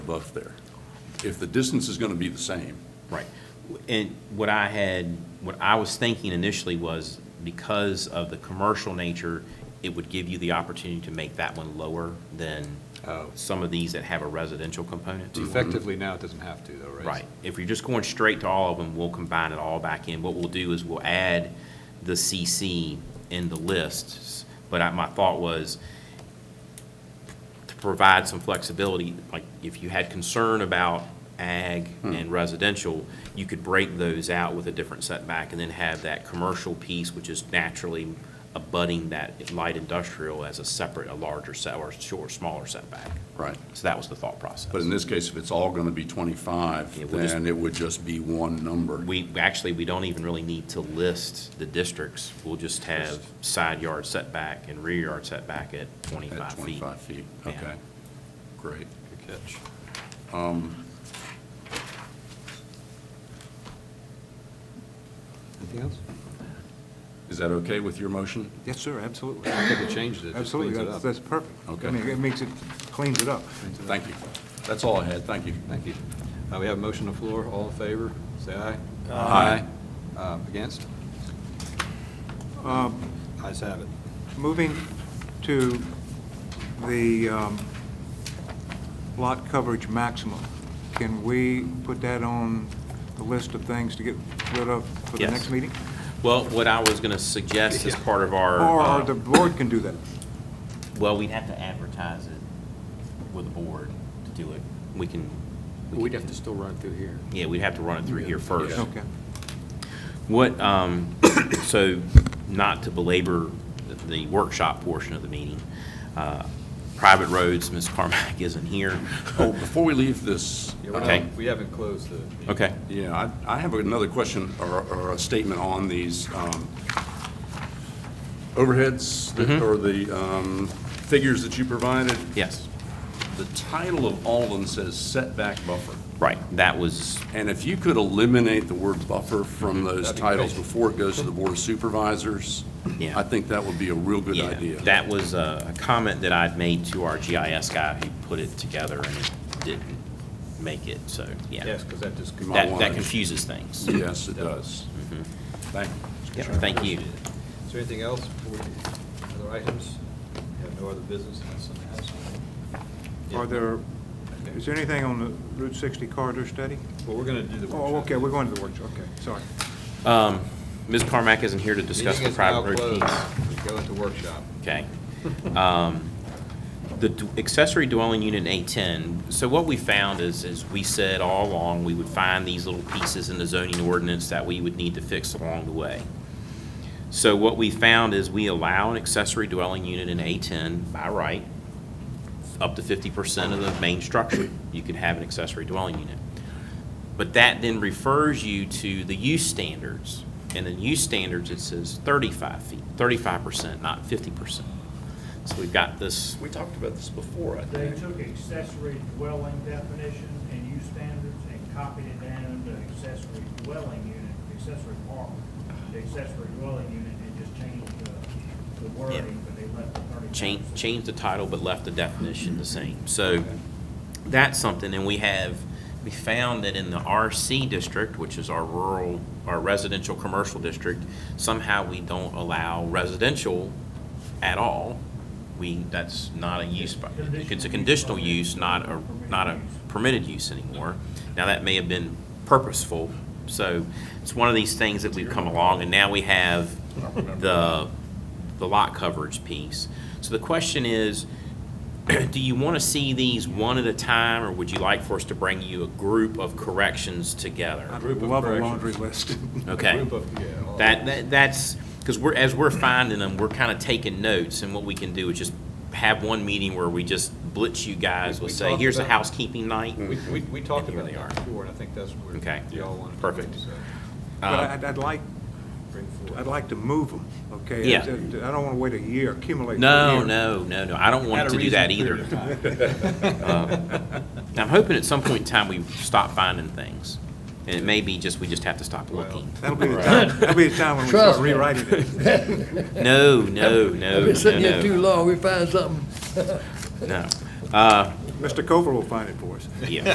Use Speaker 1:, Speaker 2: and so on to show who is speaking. Speaker 1: buff there. If the distance is going to be the same,
Speaker 2: Right. And what I had, what I was thinking initially was because of the commercial nature, it would give you the opportunity to make that one lower than
Speaker 3: Oh.
Speaker 2: some of these that have a residential component to it.
Speaker 3: Effectively now, it doesn't have to though, right?
Speaker 2: Mm-hmm. Right. If you're just going straight to all of them, we'll combine it all back in. What we'll do is we'll add the CC in the lists. But I, my thought was to provide some flexibility, like if you had concern about ag
Speaker 1: Hmm.
Speaker 2: and residential, you could break those out with a different setback and then have that commercial piece, which is naturally abutting that light industrial as a separate, a larger set, or short, smaller setback.
Speaker 1: right?
Speaker 2: So that was the thought process.
Speaker 1: But in this case, if it's all going to be 25,
Speaker 2: Yeah, we'll just-
Speaker 1: then it would just be one number.
Speaker 2: We, actually, we don't even really need to list the districts. We'll just have side yard setback and rear yard setback at
Speaker 1: At
Speaker 2: 25 feet.
Speaker 1: 25 feet,
Speaker 2: Yeah.
Speaker 1: okay. Great.
Speaker 3: Good catch.
Speaker 2: Um,
Speaker 3: Anything else?
Speaker 1: Is that okay with your motion?
Speaker 4: Yes, sir, absolutely.
Speaker 3: I think it changed it. it. just
Speaker 4: Absolutely,
Speaker 3: cleans it
Speaker 4: that's,
Speaker 3: up.
Speaker 4: that's perfect.
Speaker 1: Okay.
Speaker 4: I mean, it makes it, cleans it up.
Speaker 1: Thank you. That's all I had, thank you.
Speaker 3: Thank you. Uh, We have a motion on the floor. All in favor, say aye.
Speaker 1: Aye.
Speaker 3: Uh, Against?
Speaker 4: Um,
Speaker 3: Ayes have it.
Speaker 4: Moving to the um, lot coverage maximum, can we put that on the list of things to get rid of for the
Speaker 2: Yes.
Speaker 4: next meeting?
Speaker 2: Well, what I was going to suggest as part of our. uh,
Speaker 4: Or the board can do that?
Speaker 2: Well, we'd have to advertise it with the board to do it. We can. we
Speaker 5: We'd
Speaker 2: can-
Speaker 5: have to still run through here.
Speaker 2: Yeah, we'd have to run it through here first.
Speaker 4: Okay.
Speaker 2: What, um, so, not to belabor the workshop portion of the meeting, uh, private roads, Ms. Carmack isn't here.
Speaker 1: Oh, before we leave this, uh,
Speaker 3: Yeah, we're not-
Speaker 2: Okay.
Speaker 3: We haven't closed the. meeting.
Speaker 2: Okay.
Speaker 1: yeah, I I have another question or or a statement on these um, overheads that-
Speaker 2: Mm-hmm.
Speaker 1: or the um, figures that you provided.
Speaker 2: Yes,
Speaker 1: The title of all of them says setback buffer.
Speaker 2: right, that was,
Speaker 1: And if you could eliminate the word buffer
Speaker 2: Mm-hmm.
Speaker 1: from those
Speaker 3: That'd be
Speaker 1: titles
Speaker 3: great.
Speaker 1: before it goes to the Board of Supervisors,
Speaker 2: Yeah.
Speaker 1: I think that would be a real good
Speaker 2: yeah,
Speaker 1: idea.
Speaker 2: that was a a comment that I'd made to our GIS guy who put it together and it didn't make it, so, yeah.
Speaker 3: Yes, because that just.
Speaker 1: You might
Speaker 2: That,
Speaker 1: wanna-
Speaker 2: that confuses things.
Speaker 1: Yes, it does. Thank you.
Speaker 2: Yeah, Thank you.
Speaker 3: Is there anything else? before we- Other items? We have no other business? unless someone has one. Yeah.
Speaker 4: Are there, is there anything on the Route 60 corridor study?
Speaker 3: Well, we're going to do the workshop.
Speaker 4: Oh, okay, we're going to the workshop, okay, sorry.
Speaker 2: Um, Ms. Carmack isn't here to discuss the
Speaker 3: Meeting is
Speaker 2: private
Speaker 3: now
Speaker 2: road piece.
Speaker 3: closed. We Go into workshop.
Speaker 2: Okay. Um, The d- accessory dwelling unit in A10, so what we found is, is we said all along, we would find these little pieces in the zoning ordinance that we would need to fix along the way. So what we found is we allow an accessory dwelling unit in A10 by right, up to 50% of the main structure, you can have an accessory dwelling unit. But that then refers you to the use standards. And in use standards, it says 35 feet, 35%, not 50%. So we've got this,
Speaker 1: We talked about this before, I
Speaker 6: They
Speaker 1: think.
Speaker 6: took accessory dwelling definition and use standards and copied it down into accessory dwelling unit, accessory apartment, the accessory dwelling unit, and just changed the, the wording, but they left the thirty.
Speaker 2: change, change the title, but left the definition the same. So that's something, and we have, we found that in the RC district, which is our rural, our residential commercial district, somehow we don't allow residential at all. We, that's not a use, by- it's a conditional use, not a, not a permitted use anymore. Now, that may have been purposeful, so it's one of these things that we've come along, and now we have the, the lot coverage piece. So the question is, do you want to see these one at a time, or would you like for us to bring you a group of corrections together?
Speaker 4: I'd
Speaker 3: Group of
Speaker 4: love a
Speaker 3: corrections. Uh,
Speaker 4: laundry list.
Speaker 2: Okay.
Speaker 3: Group of- yeah, all-
Speaker 2: That, that, that's, because we're, as we're finding them, we're kind of taking notes, and what we can do is just have one meeting where we just blitz you guys,
Speaker 3: We-
Speaker 2: we'll
Speaker 3: we
Speaker 2: say,
Speaker 3: talked
Speaker 2: here's a
Speaker 3: about-
Speaker 2: housekeeping night.
Speaker 3: We, we, we talked
Speaker 2: And Hmm. here
Speaker 3: about
Speaker 2: they
Speaker 3: that
Speaker 2: are.
Speaker 3: before, and I think that's where
Speaker 2: Okay.
Speaker 3: y'all want to.
Speaker 2: Perfect.
Speaker 4: But I'd, I'd like,
Speaker 3: Bring
Speaker 4: I'd
Speaker 3: forward.
Speaker 4: like to move them, okay?
Speaker 2: Yeah.
Speaker 4: I don't want to wait a year, accumulate. for a
Speaker 2: No,
Speaker 4: year.
Speaker 2: no, no, no, I don't want to do that either.
Speaker 3: Um,
Speaker 2: I'm hoping at some point in time we stop finding things, and it may be just, we just have to stop
Speaker 3: Well.
Speaker 2: looking.
Speaker 4: That'll be the time, that'll be the time when we start
Speaker 7: Trust me.
Speaker 4: rewriting it.
Speaker 2: No, no, no,
Speaker 7: I've been sitting
Speaker 2: no,
Speaker 7: here
Speaker 2: no.
Speaker 7: too long, we find something.
Speaker 2: No. Uh,
Speaker 4: Mr. Cover will find it for us.
Speaker 2: Yeah.